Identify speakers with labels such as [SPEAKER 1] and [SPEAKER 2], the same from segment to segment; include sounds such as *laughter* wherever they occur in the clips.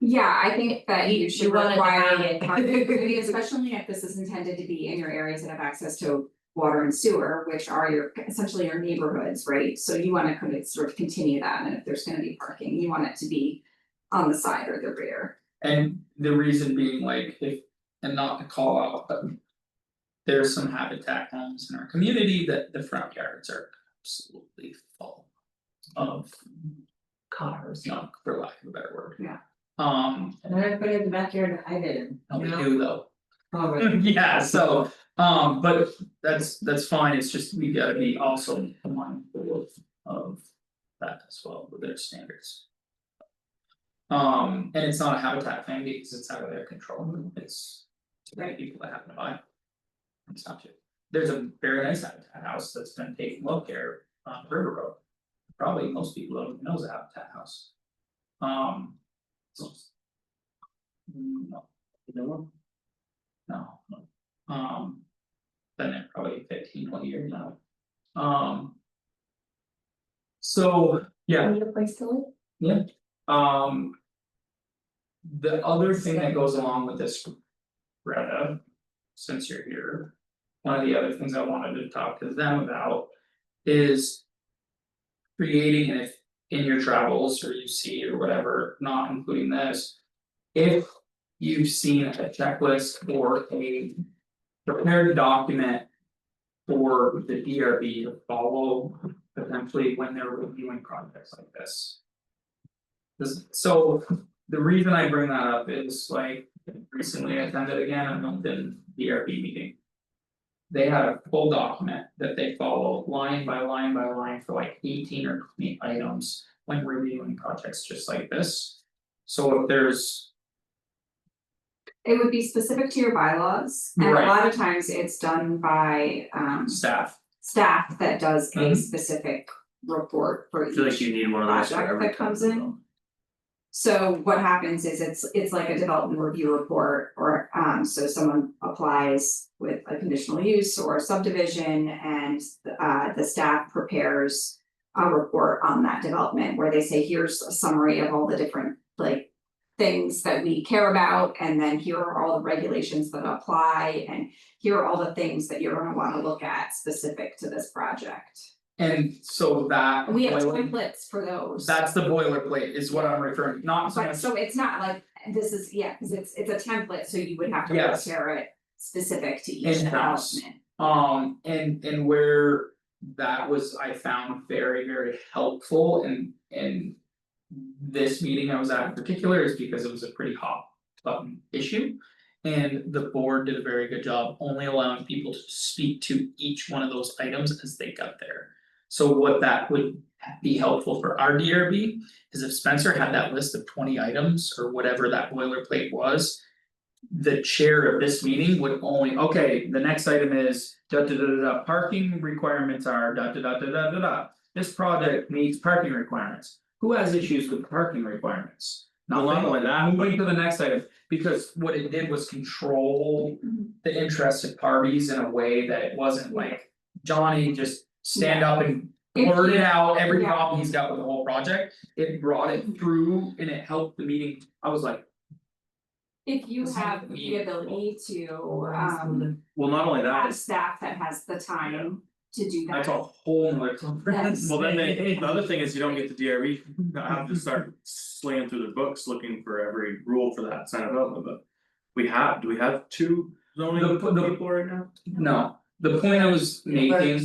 [SPEAKER 1] Yeah, I think that
[SPEAKER 2] You-
[SPEAKER 1] you should
[SPEAKER 2] you wanna
[SPEAKER 1] require
[SPEAKER 2] divide it. *laughs*
[SPEAKER 1] connectivity, especially if this is intended to be in your areas that have access to water and sewer, which are your essentially your neighborhoods, right? So you wanna kind of sort of continue that, and if there's gonna be parking, you want it to be on the side or the rear.
[SPEAKER 3] And the reason being like if, and not to call out, but. There's some habitat homes in our community that the front yards are absolutely full. Of,
[SPEAKER 2] cars.
[SPEAKER 3] junk, for lack of a better word.
[SPEAKER 1] Yeah.
[SPEAKER 3] Um,
[SPEAKER 2] And then I put it in the backyard to hide it in,
[SPEAKER 3] no, we
[SPEAKER 2] you know?
[SPEAKER 3] do though,
[SPEAKER 2] Oh, right.
[SPEAKER 3] *laughs* yeah, so, um, but that's, that's fine, it's just we gotta be also mindful of. Of that as well with their standards. Um, and it's not a habitat thing because it's out of their control, it's to many people that happen to buy. It's not too, there's a very nice habitat house that's been taken well care of on River Road. Probably most people don't even know is a habitat house. Um. so- Mm, No. No, no. um. Been there probably fifteen, twenty years now. Um. So, yeah,
[SPEAKER 2] Need a place to live?
[SPEAKER 3] um. The other thing that goes along with this. Greta, since you're here. One of the other things I wanted to talk to them about is. Creating and if in your travels or you see or whatever, not including this. If you've seen a checklist or a prepared document. For the DRB to follow potentially when they're reviewing projects like this. This, so the reason I bring that up is like recently I attended again a Moncton DRB meeting. They had a full document that they follow line by line by line for like eighteen or twenty items when reviewing projects just like this. So if there's,
[SPEAKER 1] It would be specific to your bylaws, and a
[SPEAKER 3] Right.
[SPEAKER 1] lot of times it's done by um
[SPEAKER 3] staff,
[SPEAKER 1] staff that does a
[SPEAKER 2] Mm-hmm.
[SPEAKER 3] Mhm.
[SPEAKER 1] specific report for
[SPEAKER 4] I
[SPEAKER 1] each.
[SPEAKER 4] feel like you need one of those for
[SPEAKER 1] Project
[SPEAKER 4] every
[SPEAKER 1] that comes
[SPEAKER 4] company,
[SPEAKER 1] in.
[SPEAKER 4] though.
[SPEAKER 1] So what happens is it's it's like a development review report or um so someone applies with a conditional use or subdivision and uh the staff prepares. A report on that development where they say, here's a summary of all the different like. Things that we care about and then here are all the regulations that apply and here are all the things that you're gonna wanna look at specific to this project.
[SPEAKER 3] and so that.
[SPEAKER 1] We have
[SPEAKER 3] boiler-
[SPEAKER 1] templates for those.
[SPEAKER 3] That's the boilerplate is what I'm referring, not so
[SPEAKER 1] But
[SPEAKER 3] much,
[SPEAKER 1] so it's not like, this is, yeah, cause it's it's a template, so you would have to
[SPEAKER 3] Yes.
[SPEAKER 1] prepare it specific to each development.
[SPEAKER 3] In-house. Um, and and where that was, I found very, very helpful and and. This meeting I was at in particular is because it was a pretty hot button issue. And the board did a very good job only allowing people to speak to each one of those items as they got there. So what that would be helpful for our DRB is if Spencer had that list of twenty items or whatever that boilerplate was the chair of this meeting would only, okay, the next item is da da da da da, parking requirements are da da da da da da da. This project meets parking requirements, who has issues with parking requirements? Not
[SPEAKER 4] Well, not
[SPEAKER 3] like
[SPEAKER 4] only that,
[SPEAKER 3] I'm going to the next item, because what it did was control
[SPEAKER 1] Mhm.
[SPEAKER 3] the interested parties in a way that it wasn't like. Johnny just stand up and
[SPEAKER 1] If
[SPEAKER 3] blurted
[SPEAKER 1] you-
[SPEAKER 3] out every
[SPEAKER 1] yeah.
[SPEAKER 3] problem he's got with the whole project, it brought it through and it helped the meeting, I was like,
[SPEAKER 1] If you
[SPEAKER 3] It's
[SPEAKER 1] have the
[SPEAKER 3] unbelievable.
[SPEAKER 1] ability to um
[SPEAKER 4] well, not only that,
[SPEAKER 1] have staff that has the time to do that.
[SPEAKER 3] that's a whole nother conference.
[SPEAKER 4] well, then they, the other thing is you don't get the DRE, I have to start slaying through the books looking for every rule for that sign of development, but. We have, do we have two
[SPEAKER 3] The-
[SPEAKER 4] zoning
[SPEAKER 3] the-
[SPEAKER 4] people right now?
[SPEAKER 3] No, the point I was making,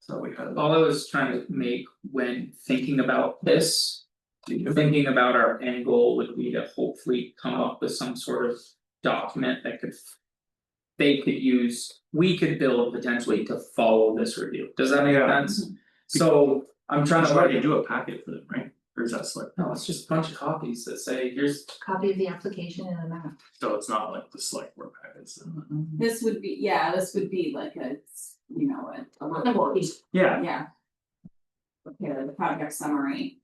[SPEAKER 4] So we have.
[SPEAKER 3] all I was trying to make when thinking about this. Thinking about our end goal would be to hopefully come up with some sort of document that could. They could use, we could build potentially to follow this review, does that make
[SPEAKER 4] Yeah.
[SPEAKER 3] sense? So I'm
[SPEAKER 4] I'm
[SPEAKER 3] trying to.
[SPEAKER 4] trying to do a packet for them, right? Or is that slick?
[SPEAKER 3] No, it's just a bunch of copies that say, here's,
[SPEAKER 2] Copy of the application and a map.
[SPEAKER 4] So it's not like the select board packets.
[SPEAKER 5] This would be, yeah, this would be like a, you know, a, a report,
[SPEAKER 4] Yeah,
[SPEAKER 5] yeah. Prepare the project summary,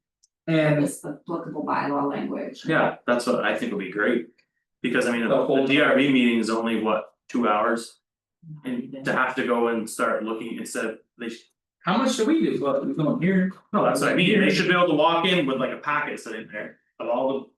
[SPEAKER 3] and
[SPEAKER 5] this applicable bylaw language.
[SPEAKER 4] yeah, that's what I think would be great. Because I mean,
[SPEAKER 3] The
[SPEAKER 4] the
[SPEAKER 3] whole-
[SPEAKER 4] DRB meeting is only what, two hours? And to have to go and start looking instead of they should
[SPEAKER 3] how much do we do, well, we don't hear.
[SPEAKER 4] No, that's what I mean, they should be able to walk in with like a packet sitting there of all